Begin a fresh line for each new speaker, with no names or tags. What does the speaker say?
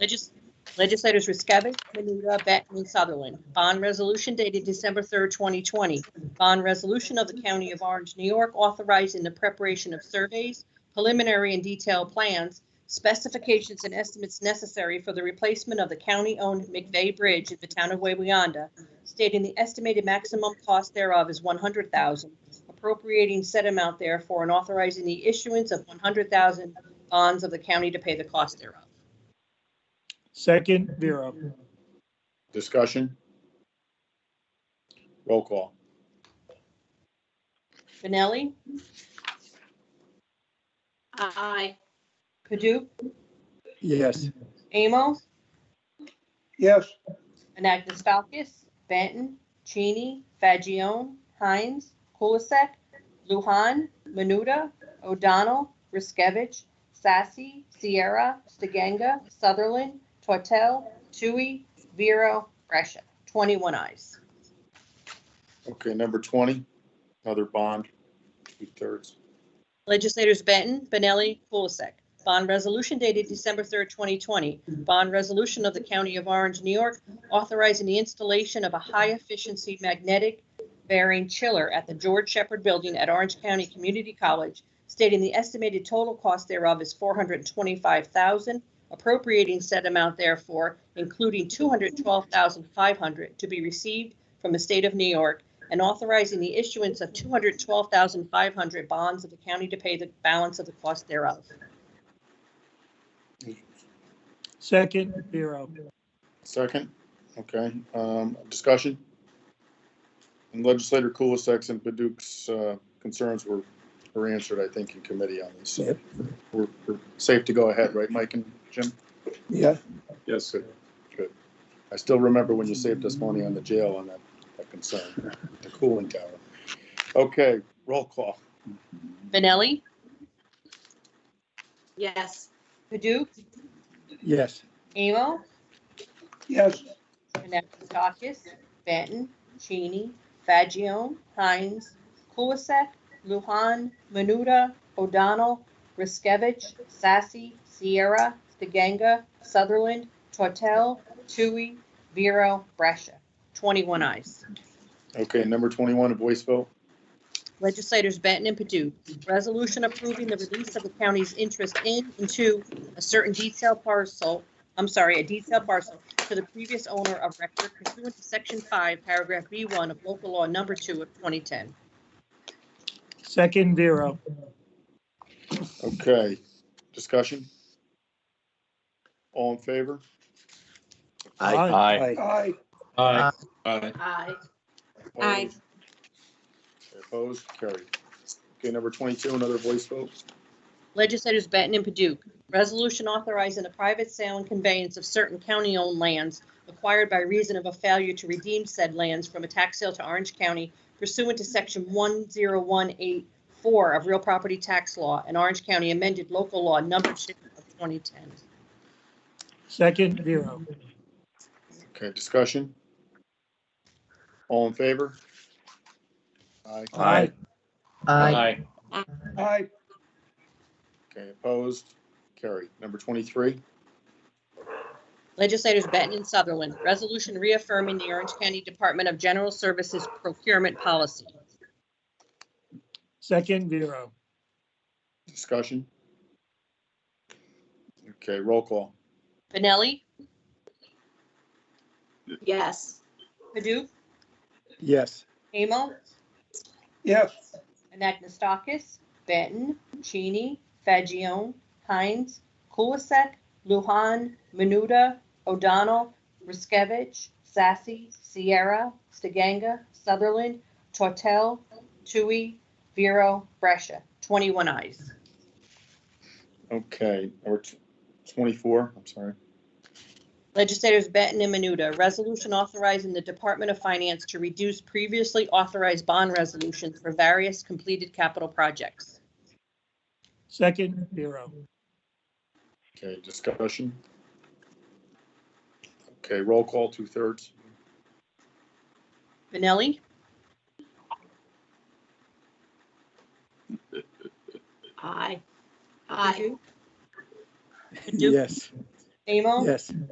Legis- Legislators Riskevich, Menuda, Beckman, Sutherland. Bond resolution dated December 3rd, 2020. Bond resolution of the County of Orange, New York, authorizing the preparation of surveys, preliminary and detailed plans, specifications and estimates necessary for the replacement of the county-owned McVeigh Bridge in the town of Wayweyanda, stating the estimated maximum cost thereof is 100000 appropriating said amount therefore and authorizing the issuance of 100000 bonds of the county to pay the cost thereof.
Second, Vero.
Discussion? Roll call.
Benelli?
Aye.
Padu?
Yes.
Amos?
Yes.
Anagnostakis, Benton? Cheney? Fagione? Hines? Kulisek? Luhan? Menuda? O'Donnell? Riskevich? Sassy? Sierra? Stiganga? Sutherland? Tortel? Tui? Vero? Gresha. 21 eyes.
Okay, number 20, another bond, two-thirds.
Legislators Benton, Benelli, Kulisek. Bond resolution dated December 3rd, 2020. Bond resolution of the County of Orange, New York, authorizing the installation of a high-efficiency magnetic bearing chiller at the George Shepherd Building at Orange County Community College, stating the estimated total cost thereof is $425,000, appropriating said amount therefore, including $212,500 to be received from the state of New York and authorizing the issuance of 212,500 bonds of the county to pay the balance of the cost thereof.
Second, Vero.
Second, okay, um, discussion? And Legislator Kulisek's and Paduk's, uh concerns were, were answered, I think, in committee on this. So
Yep.
We're, we're safe to go ahead, right, Mike and Jim?
Yeah.
Yes. Good, good. I still remember when you saved us money on the jail on that, that concern, the cooling tower. Okay, roll call.
Benelli,
Yes.
Paduk,
Yes.
Amo,
Yes.
Anagnestakis, Benton, Cheney, Fagione, Hines, Kulisek, Luhan, Menuda, O'Donnell, Riskevich, Sassy, Sierra, DeGanga, Sutherland, Tortel, Tui, Vero, Brescia. 21 eyes.
Okay, number 21 of Boyceville.
Legislators Benton and Padu. Resolution approving the release of the county's interest in and to a certain detailed parcel, I'm sorry, a detailed parcel to the previous owner of record pursuant to Section 5, Paragraph B1 of Local Law Number 2 of 2010.
Second, Vero.
Okay, discussion? All in favor?
Aye.
Aye.
Aye.
Aye.
Aye. Opposed, carried. Okay, number 22, another voice vote.
Legislators Benton and Paduk. Resolution authorizing the private sale and conveyance of certain county-owned lands acquired by reason of a failure to redeem said lands from a tax sale to Orange County pursuant to Section 10184 of Real Property Tax Law and Orange County amended local law number 2 of 2010.
Second, Vero.
Okay, discussion? All in favor? Aye.
Aye.
Aye.
Aye.
Okay, opposed, carried. Number 23,
Legislators Benton and Sutherland, resolution reaffirming the Orange County Department of General Services procurement policy.
Second, Vero.
discussion? Okay, roll call.
Benelli,
Yes.
Paduk,
Yes.
Amo,
Yes.
Anagnestakis, Benton, Cheney, Fagione, Hines, Kulisek, Luhan, Menuda, O'Donnell, Riskevich, Sassy, Sierra, Stiganga, Sutherland, Tortel, Tui, Vero, Brescia. 21 eyes.
Okay, number tw- 24, I'm sorry.
Legislators Benton and Menuda, resolution authorizing the Department of Finance to reduce previously authorized bond resolutions for various completed capital projects.
Second, Vero.
Okay, discussion? Okay, roll call, two-thirds.
Benelli,
Aye. Aye.
Paduk,
Yes.
Amo?
Yes.